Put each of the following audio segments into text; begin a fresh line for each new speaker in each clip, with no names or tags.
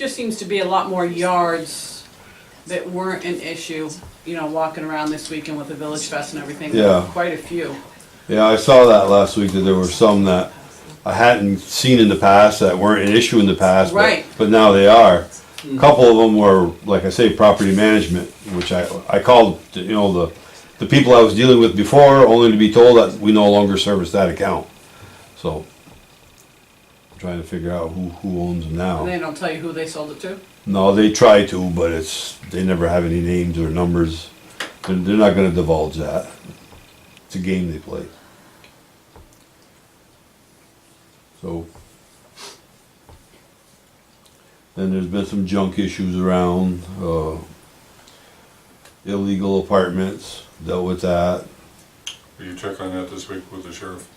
Just seems to be a lot more yards that weren't an issue, you know, walking around this weekend with the Village Fest and everything.
Yeah.
Quite a few.
Yeah, I saw that last week that there were some that I hadn't seen in the past that weren't an issue in the past,
Right. Hmm.
but, but now they are. A couple of them were, like I say, property management, which I, I called, you know, the, the people I was dealing with before, only to be told that we no longer service that account. So, trying to figure out who, who owns them
And
now.
they don't tell you who they sold it to?
No, they try to, but it's, they never have any names or numbers. They're, they're not gonna divulge that. It's a game they play. So. Then there's been some junk issues around, uh, illegal apartments, dealt with that.
Will you check on that this week with the sheriff?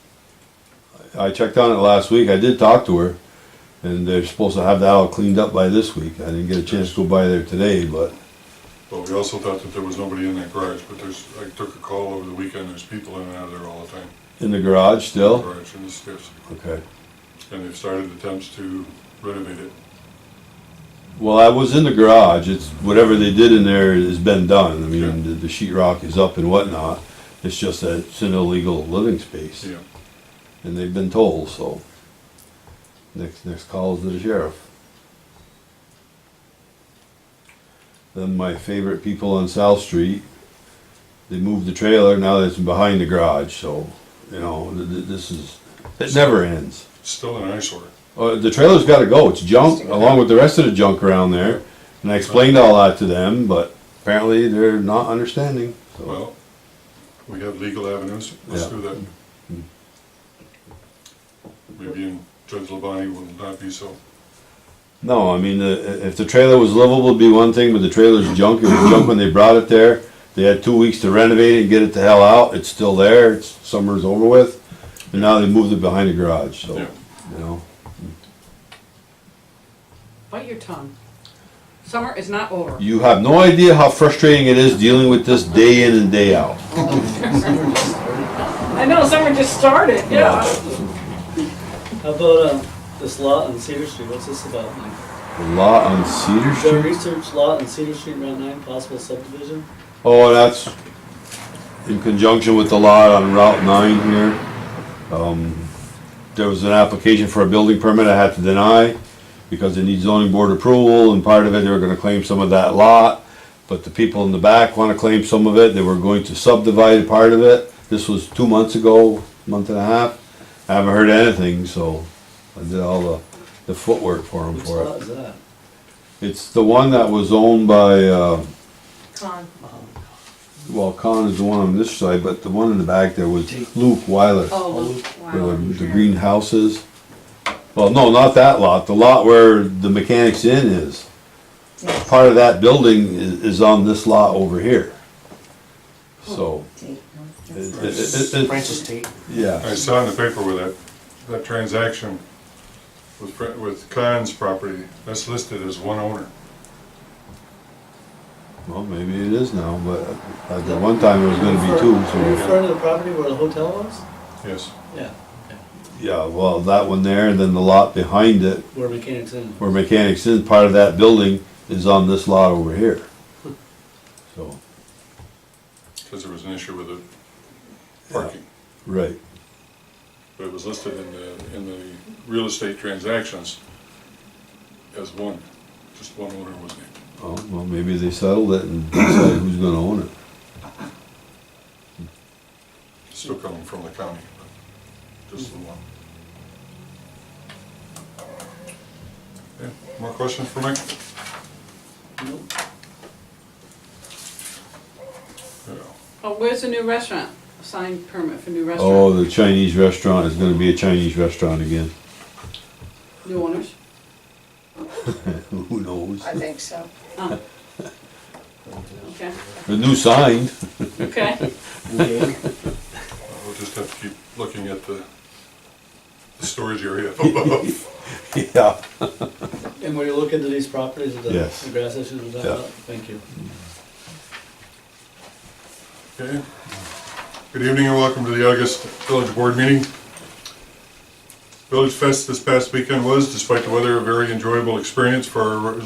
I checked on it last week, I did talk to her, and they're supposed to have that all cleaned up by this week. I didn't get a chance to go by there today, but
But we also thought that there was nobody in that garage, but there's, I took a call over the weekend, there's people in and out of there all the time.
in the garage still,
Garage and the stairs,
okay.
and they've started attempts to renovate it.
Well, I was in the garage. It's whatever they did in there has been done. I mean,
Sure.
the, the sheetrock is up and whatnot. It's just that it's an illegal living space,
Yeah,
and they've been told so. Next, next call is to the sheriff. Then my favorite people on South Street, they moved the trailer. Now that's behind the garage, so you know th- th- this is it never ends.
still an eyesore.
Uh, the trailer's got to go. It's junk, along with the rest of the junk around there. And I explained all that to them, but apparently they're not understanding. So,
Well, we have legal avenues, let's
Yeah.
do that. Maybe in Judge Labonte will not be so.
no, I mean, the, if the trailer was livable, it'd be one thing, but the trailer's junk. It was junk when they brought it there. They had two weeks to renovate it and get it the hell out. It's still there. It's summer's over with, and now they moved it behind the garage. So,
Yeah.
you know,
Bite your tongue. Summer is not over.
you have no idea how frustrating it is dealing with this day in and day out.
I know, summer just started, yeah.
How about um, this lot on Cedar Street? What's this about, Mike?
The lot on Cedar
The
Street.
research lot on Cedar Street, Route 9, possible subdivision?
Oh, that's in conjunction with the lot on Route nine here. Um, There was an application for a building permit I had to deny because it needs zoning board approval and part of it, they were gonna claim some of that lot. But the people in the back wanna claim some of it, they were going to subdivide part of it. This was two months ago, month and a half. I haven't heard anything, so I did all the, the footwork for them
Which
for it.
lot is that?
It's the one that was owned by, uh,
Con.
Well, Con is the one on this side, but the one in the back there was Luke Weiler,
Oh,
where
wow.
the, the green houses. Well, no, not that lot, the lot where the Mechanics Inn is.
Yes.
Part of that building is, is on this lot over here. So,
Tate,
it,
no, Oh, that's-
it, it, it-
Francis Tate.
yeah,
I saw in the paper where that, that transaction with, Fre- with Khan's property, that's listed as one owner.
well, maybe it is now, but at the one time it was gonna be two,
Are you
so,
referring to the property where the hotel was?
Yes,
Yeah,
yeah, well, that one there, and then the lot behind it,
where Mechanics Inn.
where Mechanics Inn, part of that building is on this lot over here. So.
because there was an issue with the parking.
Right.
But it was listed in the, in the real estate transactions as one, just one owner was named.
Oh, well, maybe they settled it and decided who's gonna own it.
Still coming from the county, but just the one. Okay, More questions for Mike?
Nope.
Yeah.
Oh, where's the new restaurant? Signed permit for new
Oh,
restaurant.
the Chinese restaurant is gonna be a Chinese restaurant again.
New owners?
Who knows?
I think so.
Oh. Okay,
The new sign,
okay.
Okay.
Uh, We'll just have to keep looking at the, the storage area above.
yeah.
And will you look into these properties, the
Yes.
the grass issues and that
Yeah.
lot? Thank you.
Okay. Good evening and welcome to the August Village Board meeting. Village Fest this past weekend was, despite the weather, a very enjoyable experience for our